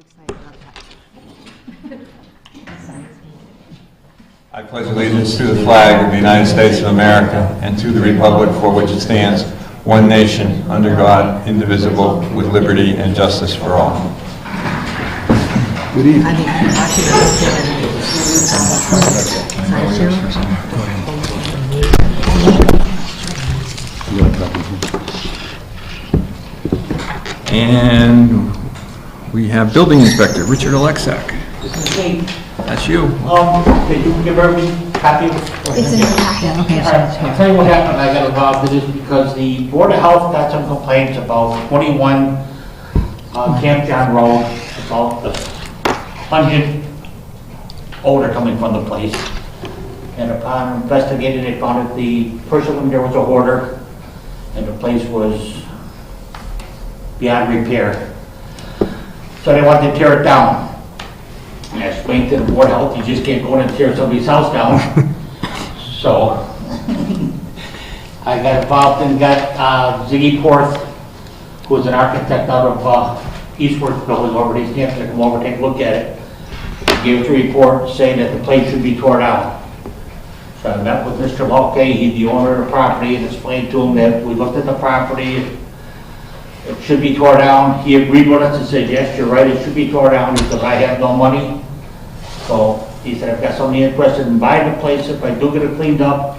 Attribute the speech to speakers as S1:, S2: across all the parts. S1: excited about that.
S2: I pledge allegiance to the flag of the United States of America and to the republic for which it stands, one nation, under God, indivisible, with liberty and justice for all. Good evening. And we have Building Inspector Richard Alexak.
S3: Okay,
S2: That's you.
S3: um, did you give her a copy? It's in the packet, okay. I'll tell you what happened, I got involved in this because the Board of Health got some complaints about 21 uh, Camp John Road, about the 100 odor coming from the place. And upon investigating, they found that the person who there was a hoarder, and the place was beyond repair. So they wanted to tear it down. And I explained to the board of health, you just can't go in and tear somebody's house down. So I got involved and got uh, Ziggy Porth, who's an architect out of uh, Eastwardsville, who's over at East Hampton, to come over, take a look at it. He Gave us a report saying that the place should be torn down. So I met with Mr. Mulkey, he's the owner of the property, and explained to him that we looked at the property, it should be tore down. He agreed with us and said, yes, you're right, it should be tore down because I have no money. So he said, I've got somebody interested in buying the place if I do get it cleaned up.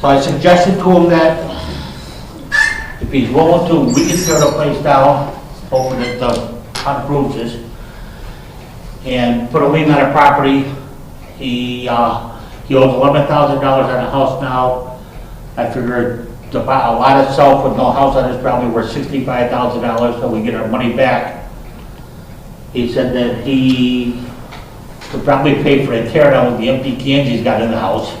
S3: So I suggested to him that if he's willing to, we can tear the place down, hoping that the town approves this, and put a lien on the property. He, uh, he owes eleven thousand dollars on the house now. I figured to buy a lot itself with no house on it is probably worth sixty-five thousand dollars, so we get our money back. He said that he could probably pay for a tear down with the empty cans he's got in the house.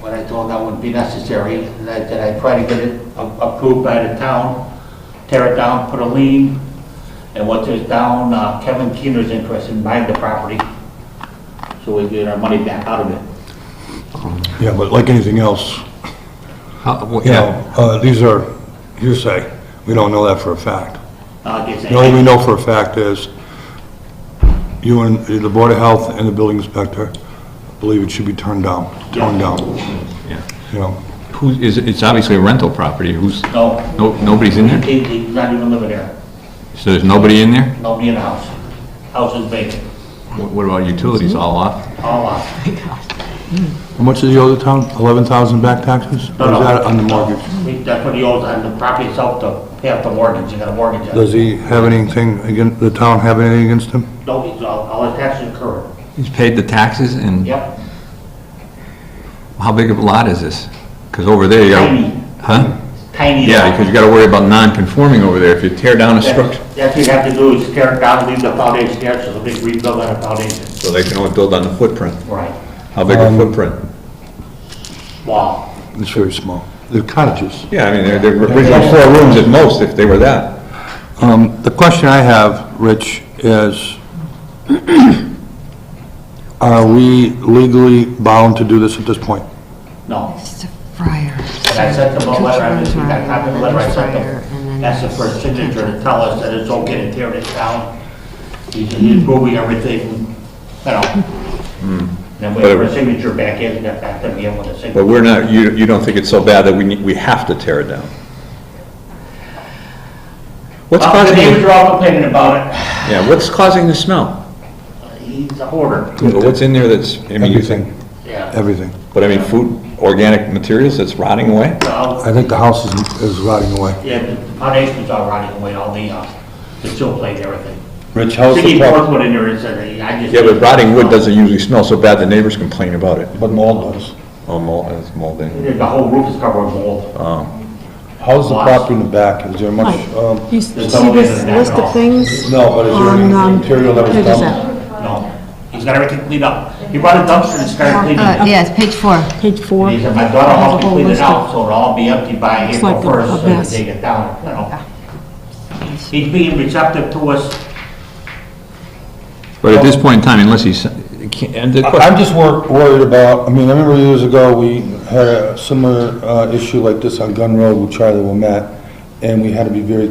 S3: But I told him that wouldn't be necessary, and I said I'd try to get it a- approved by the town, tear it down, put a lien, and once it's down, uh, Kevin Keener's interested in buying the property, so we get our money back out of it.
S4: Yeah, but like anything else, you know,
S2: Yeah,
S4: uh, these are hearsay. We don't know that for a fact.
S3: Uh, I guess I-
S4: The only thing we know for a fact is you and the Board of Health and the building inspector believe it should be turned down, torn down,
S2: yeah.
S4: you know.
S2: Who, is, it's obviously a rental property, who's,
S3: No.
S2: no, nobody's in there?
S3: He- He's not even living there.
S2: So there's nobody in there?
S3: Nobody in the house. House is vacant,
S2: What what about utilities, all off?
S3: all off.
S4: How much is the other town? 11,000 back taxes?
S3: No,
S4: Or is
S3: no.
S4: that on the mortgage?
S3: We- That's what he owes on the property itself, to pay off the mortgage, you got a mortgage on
S4: Does
S3: it.
S4: he have anything against, the town have anything against him?
S3: No, he's, all, all his taxes are current.
S2: He's paid the taxes, and
S3: Yep,
S2: how big of a lot is this? Because over there, you
S3: Tiny.
S2: got, huh?
S3: tiny.
S2: Yeah, because you gotta worry about non-conforming over there, if you tear down a
S3: That's
S2: structure.
S3: that's what you have to do, is tear it down, leave the foundation there, so the big rebuild on the foundation.
S2: So they can only build on the footprint.
S3: Right.
S2: How big a footprint?
S3: Wow.
S4: It's very small. They're cottages.
S2: Yeah, I mean, they're, they're originally four rooms at most, if they were that.
S4: Um, The question I have, Rich, is, are we legally bound to do this at this point?
S3: No.
S1: It's a fryer.
S3: And I sent them a letter, I just got a copy of the letter I sent
S1: Fryer, and
S3: them.
S1: then
S3: That's the first
S1: you can't
S3: signature to
S1: do
S3: tell us that it's okay to tear this down. He's he's moving everything, you know. Then wait for a signature back in, that back to be able to
S2: But
S3: sign.
S2: we're not, you, you don't think it's so bad that we need, we have to tear it down? What's
S3: Well, the
S2: causing,
S3: neighbors are
S2: the-
S3: all complaining about it.
S2: yeah, what's causing the smell?
S3: He's a hoarder.
S2: Yeah, but What's in there that's, I mean, you think?
S4: Everything,
S3: Yeah.
S4: everything.
S2: But I mean, food, organic materials that's rotting away?
S3: So,
S4: I think the house is is rotting away.
S3: yeah, the foundations are rotting away, all the, uh, the still plate, and everything.
S2: Rich, how's
S3: Sticky fourth one in there is, uh, I just.
S2: Yeah, but rotting wood doesn't usually smell so bad, the neighbors complain about it.
S5: But mold does.
S2: Oh, mold, it's molding.
S3: The whole roof is covered with
S2: Oh.
S3: mold.
S5: How's the property in the back? Is there much, um,
S6: You see
S3: There's no
S6: this
S3: reason that
S6: list
S3: at all.
S6: of things?
S5: no, but is there
S6: On, um,
S5: any material that was
S6: pages
S5: dumped?
S3: No. He's got everything cleaned up. He brought a dumpster and started cleaning it
S1: Uh, yeah, it's page four.
S6: Page four.
S3: He said, my daughter
S6: has a
S3: helped me
S6: whole
S3: clean it
S6: list
S3: out,
S6: of-
S3: so it'll all be empty by
S6: It's
S3: April
S6: like a- a
S3: first, so we can
S6: mess.
S3: take it down, you know. He's being receptive to us.
S2: But at this point in time, unless he's, and the
S5: I- I'm just wor- worried about, I mean, I remember years ago, we had a similar uh, issue like this on Gun Road with Charlie Womet, and we had to be very